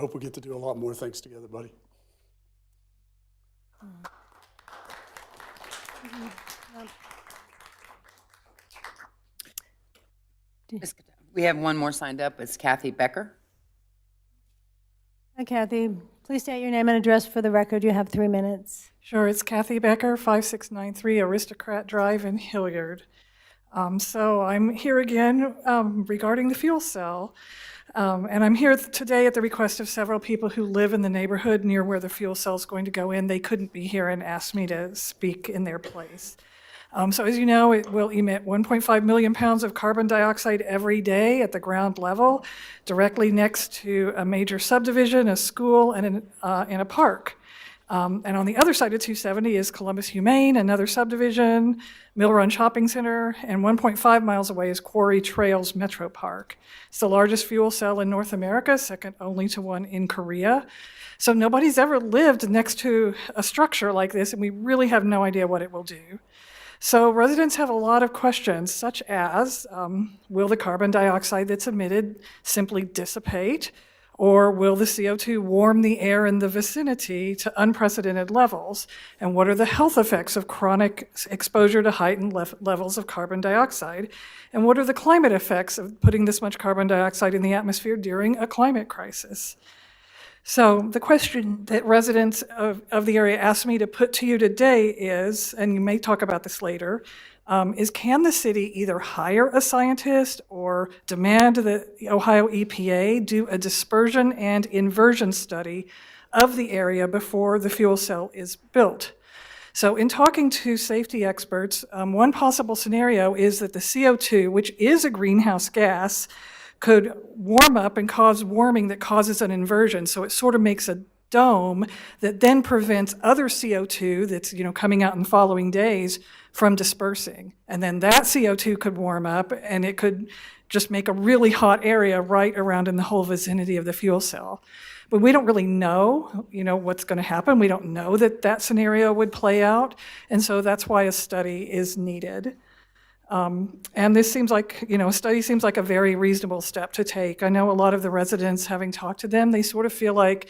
hope we get to do a lot more things together, buddy. Ms. Cato- We have one more signed up. It's Kathy Becker. Hi Kathy, please state your name and address for the record. You have three minutes. Sure, it's Kathy Becker, 5693 Aristocrat Drive in Hilliard. Um, So I'm here again um, regarding the fuel cell. Um, And I'm here today at the request of several people who live in the neighborhood near where the fuel cell's going to go in. They couldn't be here and asked me to speak in their place. Um, So as you know, it will emit 1.5 million pounds of carbon dioxide every day at the ground level, directly next to a major subdivision, a school, and an, uh, and a park. Um, And on the other side of 270 is Columbus Humane, another subdivision, Mill Run Shopping Center, and 1.5 miles away is Quarry Trails Metro Park. It's the largest fuel cell in North America, second only to one in Korea. So nobody's ever lived next to a structure like this, and we really have no idea what it will do. So residents have a lot of questions, such as, um, will the carbon dioxide that's emitted simply dissipate? Or will the CO2 warm the air in the vicinity to unprecedented levels? And what are the health effects of chronic s- exposure to heightened lef- levels of carbon dioxide? And what are the climate effects of putting this much carbon dioxide in the atmosphere during a climate crisis? So the question that residents of, of the area asked me to put to you today is, and you may talk about this later, um, is can the city either hire a scientist or demand the Ohio EPA do a dispersion and inversion study of the area before the fuel cell is built? So in talking to safety experts, um, one possible scenario is that the CO2, which is a greenhouse gas, could warm up and cause warming that causes an inversion. So it sort of makes a dome that then prevents other CO2 that's, you know, coming out in the following days from dispersing. And then that CO2 could warm up and it could just make a really hot area right around in the whole vicinity of the fuel cell. But we don't really know, you know, what's going to happen. We don't know that that scenario would play out. And so that's why a study is needed. Um, And this seems like, you know, a study seems like a very reasonable step to take. I know a lot of the residents, having talked to them, they sort of feel like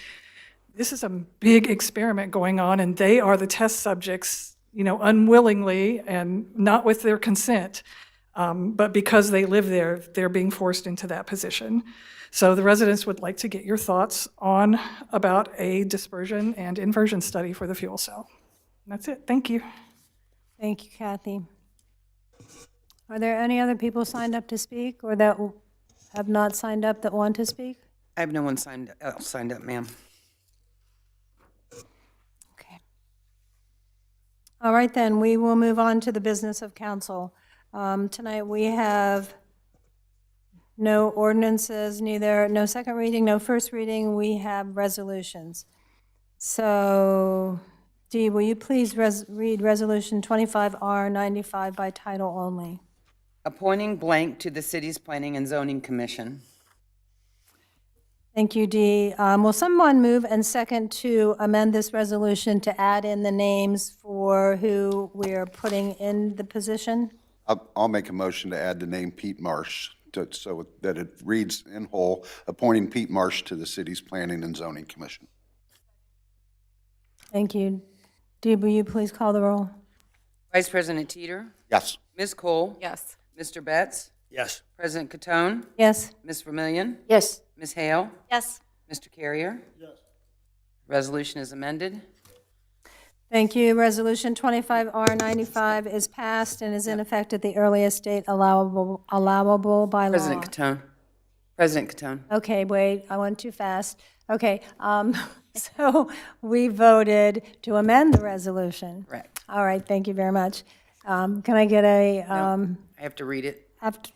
this is a big experiment going on and they are the test subjects, you know, unwillingly and not with their consent. Um, but because they live there, they're being forced into that position. So the residents would like to get your thoughts on about a dispersion and inversion study for the fuel cell. That's it. Thank you. Thank you, Kathy. Are there any other people signed up to speak or that w- have not signed up that want to speak? I have no one signed, else signed up, ma'am. Okay. All right, then, we will move on to the business of council. Um, Tonight, we have no ordinances, neither, no second reading, no first reading. We have resolutions. So, Dee, will you please res- read Resolution 25R95 by title only? Appointing blank to the city's Planning and Zoning Commission. Thank you, Dee. Um, Will someone move and second to amend this resolution to add in the names for who we are putting in the position? I'll, I'll make a motion to add the name Pete Marsh, to- so that it reads in whole, appointing Pete Marsh to the city's Planning and Zoning Commission. Thank you. Dee, will you please call the roll? Vice President Teeter, Yes. Ms. Cole. Yes. Mr. Betts, Yes. President Catone, Yes. Ms. Vermillion, Yes. Ms. Hale, Yes. Mr. Carrier. Yes. Resolution is amended. Thank you. Resolution 25R95 is passed and is in effect at the earliest date allowable, allowable by law. President Catone. President Catone. Okay, wait, I went too fast. Okay, um, so we voted to amend the resolution. Correct. All right, thank you very much. Um, Can I get a, um, I have to read it aft-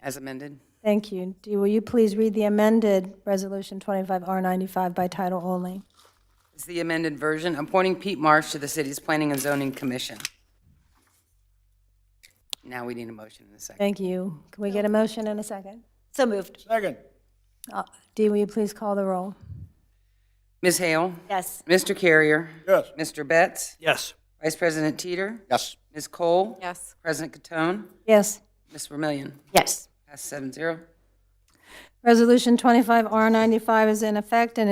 as amended. thank you. Dee, will you please read the amended Resolution 25R95 by title only? It's the amended version, appointing Pete Marsh to the city's Planning and Zoning Commission. Now we need a motion in a second. Thank you. Can we get a motion and a second? So moved. Second. Uh, Dee, will you please call the roll? Ms. Hale? Yes. Mr. Carrier? Yes. Mr. Betts? Yes. Vice President Teeter? Yes. Ms. Cole? Yes. President Catone, Yes. Ms. Vermillion, Yes. pass seven zero. Resolution 25R95 is in effect and